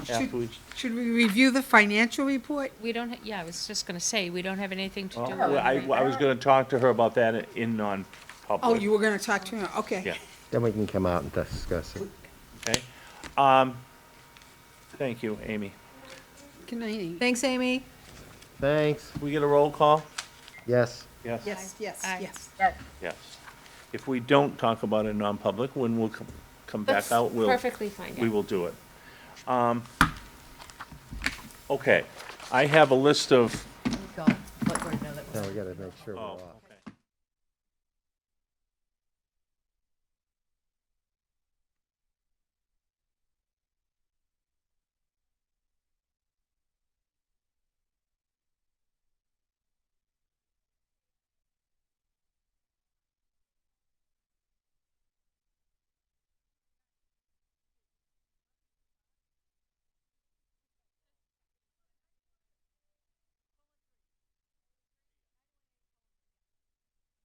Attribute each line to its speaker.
Speaker 1: after we,
Speaker 2: Should we review the financial report?
Speaker 3: We don't, ha- yeah, I was just gonna say, we don't have anything to do
Speaker 1: well,
Speaker 3: with
Speaker 1: I,
Speaker 3: it.
Speaker 1: I was gonna talk to her about that in non-public.
Speaker 2: Oh, you were gonna talk to him, okay.
Speaker 1: Yeah.
Speaker 4: Then we can come out and discuss it.
Speaker 1: Okay. Um, thank you, Amy.
Speaker 2: Good night.
Speaker 5: Thanks, Amy.
Speaker 4: Thanks,
Speaker 1: We get a roll call?
Speaker 4: yes.
Speaker 1: Yes.
Speaker 2: Yes, yes,
Speaker 3: Aye.
Speaker 2: yes.
Speaker 1: Yes. If we don't talk about it in non-public, when we'll come, come back
Speaker 5: That's
Speaker 1: out, we'll,
Speaker 5: Perfectly fine.
Speaker 1: we will do it. Um, Okay, I have a list of
Speaker 5: Go, let Gordon know that we're-
Speaker 4: Now we gotta make sure we're
Speaker 1: Oh.
Speaker 4: off.